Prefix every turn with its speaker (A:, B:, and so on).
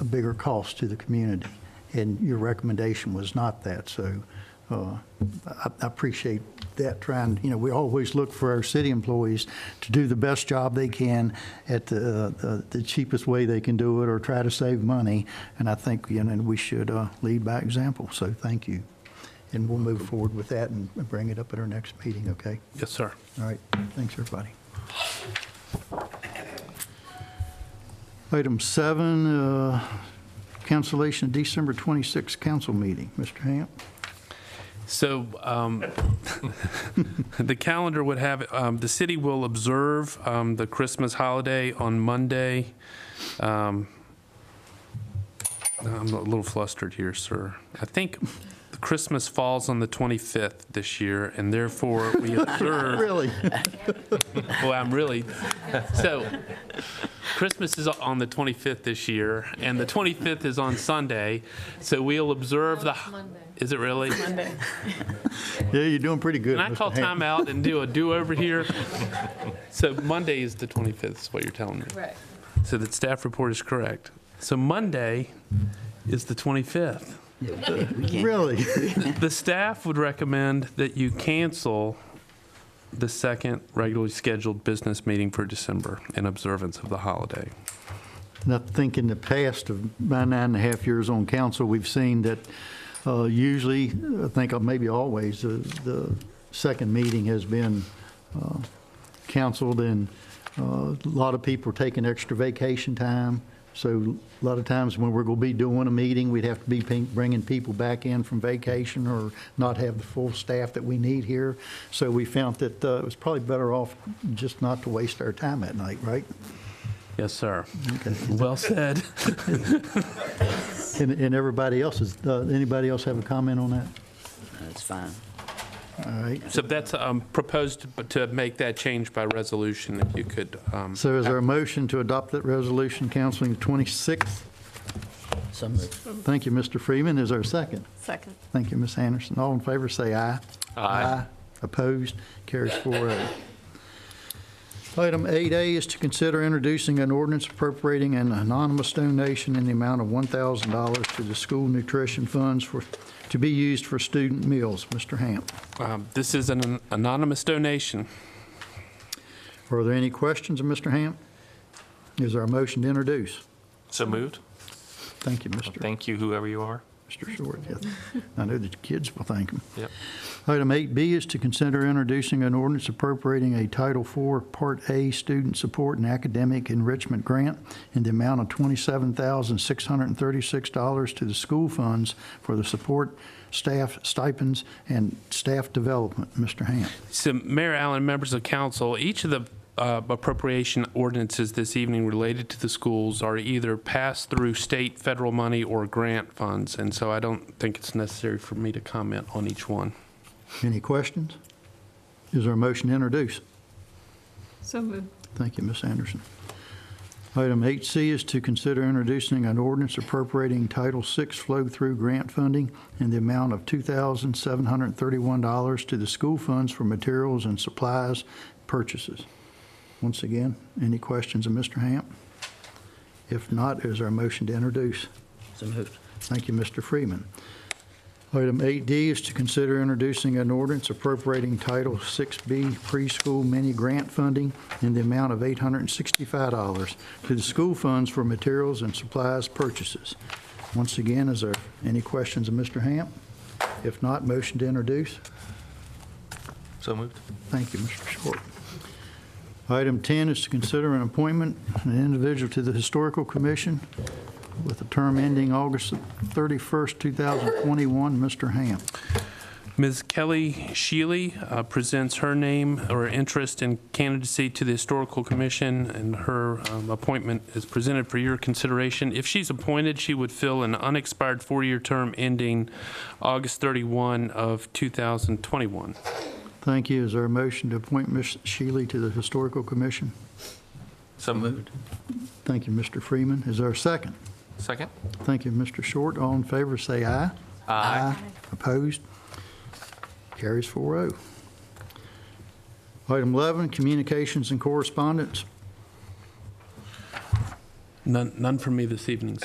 A: a bigger cost to the community. And your recommendation was not that, so uh, I I appreciate that trying, you know, we always look for our city employees to do the best job they can at the, uh, the cheapest way they can do it or try to save money. And I think, you know, we should uh, lead by example, so thank you. And we'll move forward with that and bring it up at our next meeting, okay?
B: Yes, sir.
A: All right, thanks, everybody. Item seven, uh, cancellation of December 26th council meeting. Mr. Hamp?
B: So um, the calendar would have, um, the city will observe um, the Christmas holiday on Monday. Um, I'm a little flustered here, sir. I think Christmas falls on the 25th this year, and therefore we observe
A: Really?
B: Well, I'm really, so Christmas is on the 25th this year, and the 25th is on Sunday, so we'll observe the. Monday. Is it really? Monday.
A: Yeah, you're doing pretty good,
B: Can I
A: Mr.
B: call
A: Hamp.
B: timeout and do a do-over here? So Monday is the 25th, is what you're telling me.
C: Correct.
B: So that staff report is correct. So Monday is the 25th.
A: Really?
B: The staff would recommend that you cancel the second regularly scheduled business meeting for December in observance of the holiday.
A: And I think in the past of my nine and a half years on council, we've seen that uh, usually, I think maybe always, uh, the second meeting has been uh, canceled and uh, a lot of people are taking extra vacation time. So a lot of times when we're going to be doing a meeting, we'd have to be ping- bringing people back in from vacation or not have the full staff that we need here. So we found that uh, it was probably better off just not to waste our time at night, right?
B: Yes, sir. Well said.
A: And, and everybody else is, uh, anybody else have a comment on that?
D: That's fine.
A: All right.
B: So that's um, proposed to make that change by resolution, if you could. um,
A: So is there a motion to adopt that resolution, counseling the 26th? Thank you, Mr. Freeman. Is there a second?
C: Second.
A: Thank you, Ms. Anderson. All in favor, say aye. Aye. Opposed? Carries 4-0. Item 8A is to consider introducing an ordinance appropriating an anonymous donation in the amount of $1,000 to the school nutrition funds for, to be used for student meals. Mr. Hamp,
B: um, This is an anonymous donation.
A: are there any questions of Mr. Hamp? Is there a motion to introduce?
E: So moved.
A: Thank you, Mr.
E: Thank you, whoever you are.
A: Mr. Short. Yes. I know the kids will thank him.
E: Yep.
A: Item 8B is to consider introducing an ordinance appropriating a Title IV Part A Student Support and Academic Enrichment Grant in the amount of $27,636 to the school funds for the support staff stipends and staff development. Mr. Hamp.
B: So Mayor Allen, members of council, each of the uh, appropriation ordinances this evening related to the schools are either passed through state, federal money, or grant funds, and so I don't think it's necessary for me to comment on each one.
A: Any questions? Is there a motion to introduce?
C: So moved.
A: Thank you, Ms. Anderson. Item 8C is to consider introducing an ordinance appropriating Title VI flow-through grant funding in the amount of $2,731 to the school funds for materials and supplies purchases. Once again, any questions of Mr. Hamp? If not, is there a motion to introduce?
D: So moved.
A: Thank you, Mr. Freeman. Item 8D is to consider introducing an ordinance appropriating Title 6B preschool mini grant funding in the amount of $865 to the school funds for materials and supplies purchases. Once again, is there any questions of Mr. Hamp? If not, motion to introduce.
E: So moved.
A: Thank you, Mr. Short. Item 10 is to consider an appointment, of an individual to the Historical Commission with a term ending August 31st, 2021. Mr. Hamp.
B: Ms. Kelly Shealy uh, presents her name or interest in candidacy to the Historical Commission, and her um, appointment is presented for your consideration. If she's appointed, she would fill an unexpired four-year term ending August 31 of 2021.
A: Thank you. Is there a motion to appoint Ms. Shealy to the Historical Commission?
E: So moved.
A: Thank you, Mr. Freeman. Is there a second?
E: Second?
A: Thank you, Mr. Short. All in favor, say aye. Opposed? Carries 4-0. Item 11, communications and correspondence.
B: None none from me this evening,